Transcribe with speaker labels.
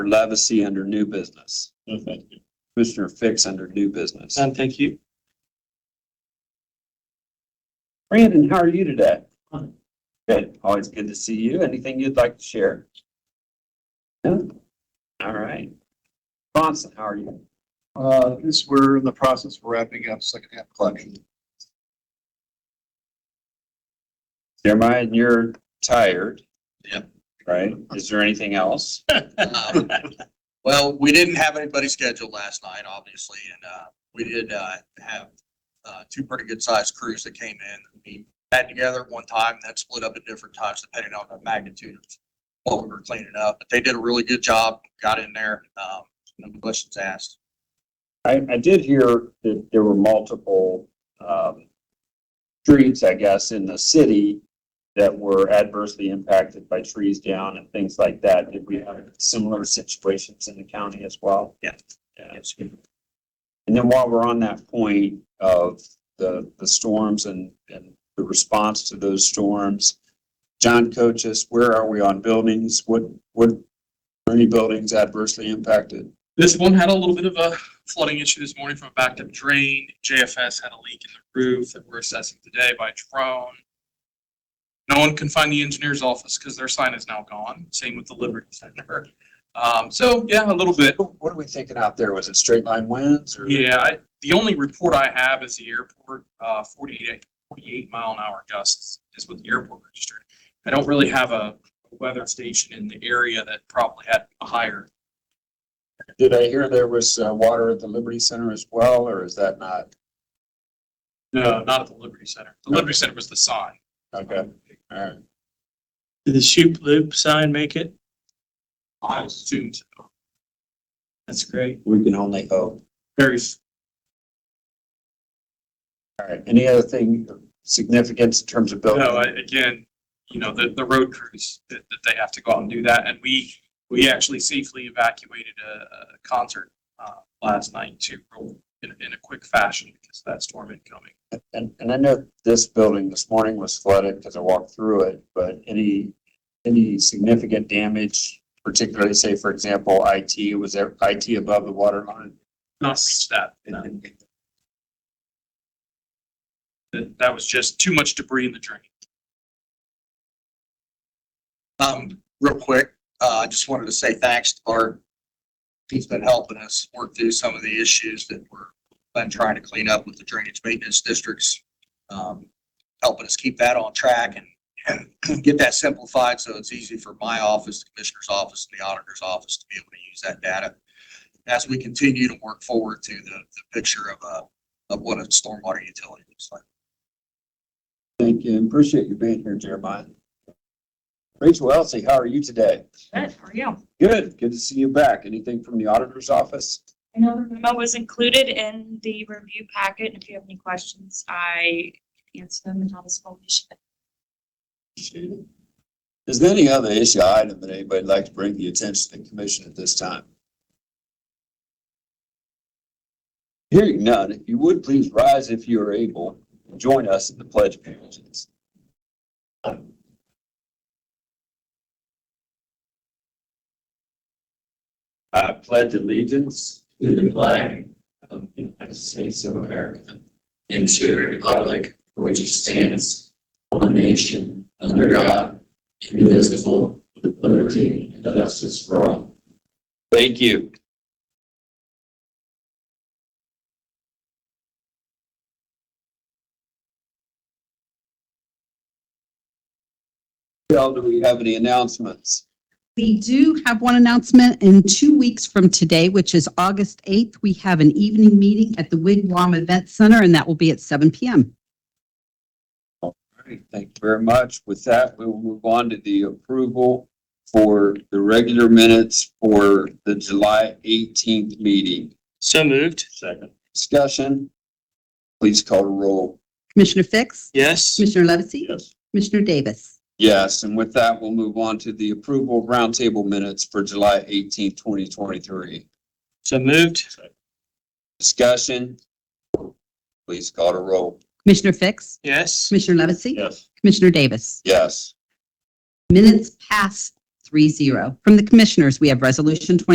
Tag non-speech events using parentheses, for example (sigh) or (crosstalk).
Speaker 1: for Levacy under new business.
Speaker 2: No, thank you.
Speaker 1: Commissioner Fix under new business.
Speaker 2: None, thank you.
Speaker 1: Brandon, how are you today?
Speaker 2: Fine.
Speaker 1: Good. Always good to see you. Anything you'd like to share? No? All right. Bronson, how are you?
Speaker 3: Uh, this, we're in the process of wrapping up second half collection.
Speaker 1: Jeremiah, you're tired.
Speaker 3: Yep.
Speaker 1: Right? Is there anything else?
Speaker 3: Um, (laughs) Well, we didn't have anybody scheduled last night, obviously, and, uh, we did, uh, have, uh, two pretty good sized crews that came in. We had together at one time, then split up at different times depending on the magnitude of what we were cleaning up. But they did a really good job, got in there, um, no questions asked.
Speaker 1: I, I did hear that there were multiple, um, streets, I guess, in the city that were adversely impacted by trees down and things like that. Did we have similar situations in the county as well?
Speaker 3: Yeah.
Speaker 1: Yeah. And then while we're on that point of the, the storms and, and the response to those storms, John Coaches, where are we on buildings? What, what, are any buildings adversely impacted?
Speaker 2: This one had a little bit of a flooding issue this morning from a backed up drain. JFS had a leak in the roof that we're assessing today by drone. No one can find the engineer's office because their sign is now gone. Same with the Liberty Center. Um, so yeah, a little bit.
Speaker 1: What are we thinking out there? Was it straight line winds or?
Speaker 2: Yeah, I, the only report I have is the airport, uh, 48 48 mile an hour gusts is what the airport registered. I don't really have a weather station in the area that probably had a higher
Speaker 1: Did I hear there was uh, water at the Liberty Center as well, or is that not?
Speaker 2: No, not at the Liberty Center. The Liberty Center was the sign.
Speaker 1: Okay, all right.
Speaker 4: Did the shoot loop sign make it?
Speaker 2: I assumed so.
Speaker 4: That's great.
Speaker 1: We can only hope.
Speaker 2: Very, s-
Speaker 1: All right. Any other thing of significance in terms of building?
Speaker 2: no, I- again, you know, the, the road crews, that, that they have to go out and do that. And we, we actually safely evacuated a, a concert, uh, last night to, in, in a quick fashion because of that storm incoming.
Speaker 1: And, and I know this building this morning was flooded because I walked through it, but any, any significant damage, particularly say, for example, IT, was there IT above the water line?
Speaker 2: Not reached that. no. That, that was just too much debris in the drain.
Speaker 3: Um, real quick, uh, I just wanted to say thanks to Bart. He's been helping us work through some of the issues that we're been trying to clean up with the drainage maintenance districts. Um, helping us keep that on track and, and (clears throat) get that simplified so it's easy for my office, the commissioner's office, and the auditor's office to be able to use that data. As we continue to work forward to the, the picture of, uh, of what a stormwater utility looks like.
Speaker 1: Thank you. Appreciate you being here, Jeremiah. Rachel Elsie, how are you today?
Speaker 5: Good, how are you?
Speaker 1: Good. Good to see you back. Anything from the auditor's office?
Speaker 5: I know the memo was included in the review packet, and if you have any questions, I can answer them in Thomas Polish.
Speaker 1: Is there any other issue or item that anybody'd like to bring to the attention of the commission at this time? Hearing none, if you would please rise if you are able, and join us in the pledge of allegiance. I pledge allegiance
Speaker 6: to the flag of the United States of America and to the republic for which it stands, one nation, under God, indivisible, with liberty and justice for all.
Speaker 1: Thank you. Michelle, do we have any announcements?
Speaker 7: We do have one announcement in two weeks from today, which is August 8th. We have an evening meeting at the Wigwam Event Center, and that will be at 7 PM.
Speaker 1: All right, Thank you very much. With that, we will move on to the approval for the regular minutes for the July 18th meeting.
Speaker 4: So moved.
Speaker 1: Second. Discussion. Please call the roll.
Speaker 7: Commissioner Fix?
Speaker 4: Yes.
Speaker 7: Commissioner Levesey?
Speaker 1: Yes.
Speaker 7: Commissioner Davis?
Speaker 1: Yes, and with that, we'll move on to the approval of roundtable minutes for July 18th, 2023.
Speaker 4: So moved.
Speaker 1: Discussion. Please call to roll.
Speaker 7: Commissioner Fix?
Speaker 4: Yes.
Speaker 7: Commissioner Levesey?
Speaker 1: Yes.
Speaker 7: Commissioner Davis?
Speaker 1: Yes.
Speaker 7: Minutes pass 3-0. From the Commissioners, we have Resolution 2023